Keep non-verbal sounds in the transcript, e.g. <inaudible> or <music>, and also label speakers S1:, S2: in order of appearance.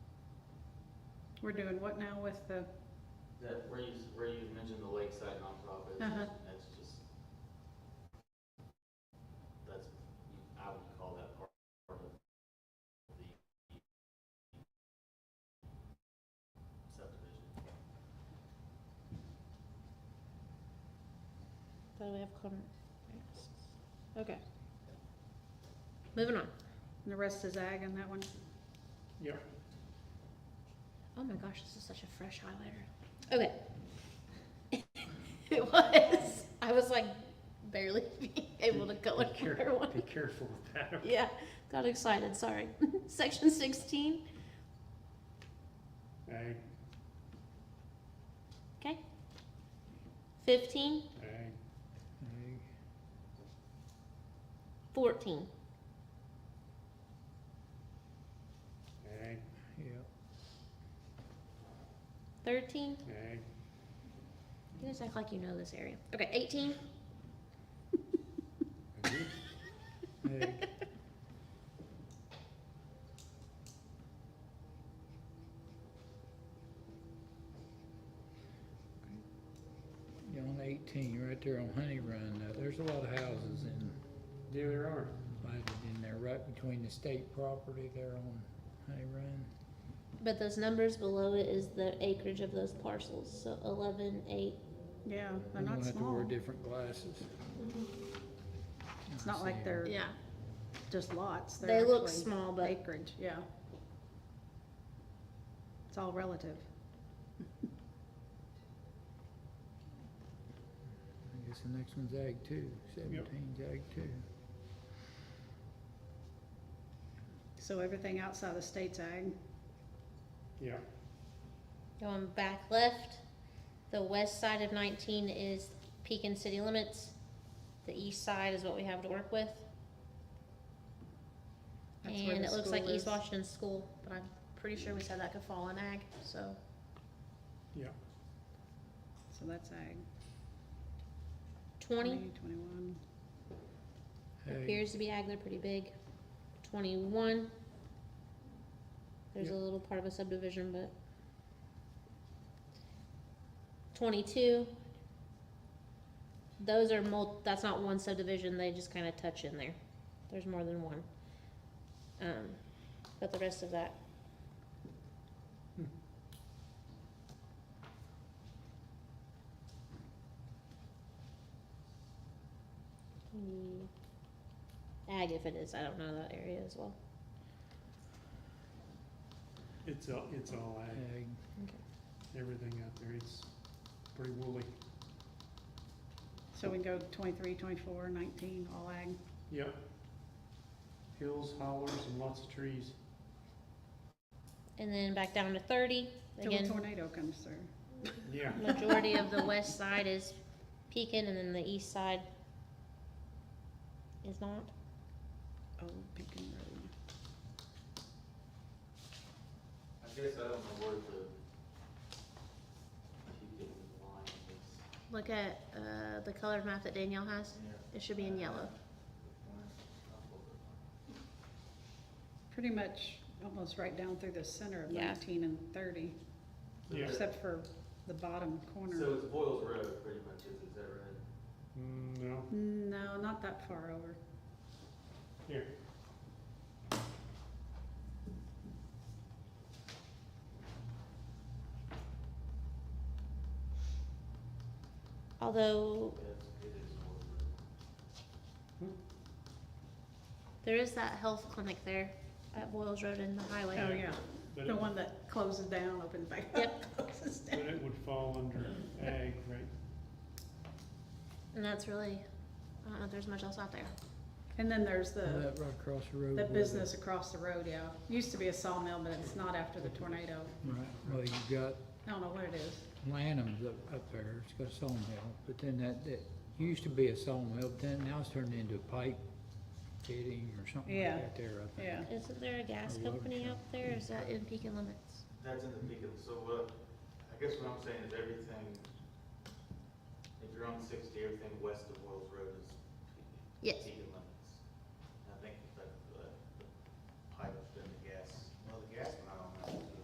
S1: We're doing what now with the,
S2: That, where you, where you mentioned the lakeside nonprofit,
S1: Uh-huh.
S2: that's just, that's, I would call that part part of the subdivision.
S3: But we have common. Okay. Moving on.
S1: and the rest is ag and that one?
S4: Yeah.
S3: Oh my gosh, this is such a fresh highlighter. Okay. <laughs> it was. I was like barely <laughs> being able to color
S4: Be care-
S3: another one.
S4: Be careful with that.
S3: <laughs> Yeah, got excited. Sorry. <laughs> Section 16.
S4: Ag,
S3: Okay. 15,
S4: ag,
S3: 14,
S4: ag,
S5: Yeah,
S3: 13.
S4: ag.
S3: You guys act like you know this area. Okay, 18,
S4: Ag.
S5: <laughs> egg, 18 on eighteen, right there on Honey Run, uh, there's a lot of houses in,
S4: Yeah, there are.
S5: planted in there, right between the state property there on Honey Run.
S3: but those numbers below it is the acreage of those parcels. So 11, 8,
S1: Yeah, they're
S5: We're gonna
S1: not
S5: have to wear
S1: small.
S5: different glasses.
S3: Mm-hmm.
S1: It's not like they're
S3: yeah.
S1: just lots. They're
S3: They look
S1: actually
S3: small, but
S1: Acreage, yeah. It's all relative.
S5: I guess the next one's ag two, seventeen's ag two.
S1: So everything outside of state's ag,
S4: Yeah.
S3: Going back left, the west side of 19 is Pekin city limits. The east side is what we have to work with.
S1: That's where
S3: And
S1: the
S3: it looks like
S1: school
S3: East
S1: is.
S3: Washington School, but I'm pretty sure we said that could fall in ag, so.
S1: so that's ag.
S3: 20
S1: Twenty-one.
S5: Ag,
S3: appears to be ag, they're pretty big. 21. There's a
S5: Yep.
S3: little part of a subdivision, but. 22. Those are mul, that's not one subdivision, they just kind of touch in there. There's more than one. Um, but the rest of that.
S4: Hmm.
S3: Hmm. Ag if it is, I don't know that area as well.
S4: It's all, it's all ag.
S5: ag,
S4: Everything out there. It's pretty woolly.
S1: So we can go twenty-three, twenty-four, nineteen, all ag.
S4: Yep. Hills, hollers, and lots of trees.
S3: And then back down to thirty,
S1: Till a
S3: again,
S1: tornado comes through.
S4: Yeah.
S3: majority of
S1: <laughs>
S3: the west side is Pekin, and then the east side is not. Oh,
S1: Old Pekin Road.
S2: I guess I don't know where the, if you can line this.
S3: Look at, uh, the colored map that Danielle has, it should be in yellow.
S1: Pretty much almost right down through the center of
S3: Yeah.
S1: nineteen and thirty,
S4: Yeah.
S1: except for the bottom
S2: So
S1: corner.
S2: it's Boyle's Road pretty much, is, is that right?
S4: Mm, No,
S1: No, not that far over.
S4: here.
S3: Although,
S2: Yes, it is Boyle's Road.
S3: there is that health clinic there at Boyles Road and the highway.
S1: Oh, yeah,
S4: But
S1: the
S4: it,
S1: one that closes down, opens back up, <laughs> closes
S4: but
S1: down.
S4: it would fall under ag, right?
S3: And that's really, I don't know if there's much else out there.
S1: And then there's the,
S5: that right across the road.
S1: the
S5: where the-
S1: business across the road, yeah. Used to be a sawmill, but it's not after the tornado.
S5: Right, well, you've got
S1: I don't know what it is.
S5: Lanham's up, up there, it's got a sawmill, but then that, that used to be a sawmill, but then now it's turned into a pipe fitting or something
S1: Yeah.
S5: like that there, I think.
S1: Yeah,
S3: Isn't there a gas
S5: A water
S3: company
S5: truck.
S3: out there, or is that in Pekin limits?
S2: That's in the peak of, so what, I guess what I'm saying is everything, if you're on sixty, everything west of Wells Road is
S3: Yes.
S2: peak and limit. uh,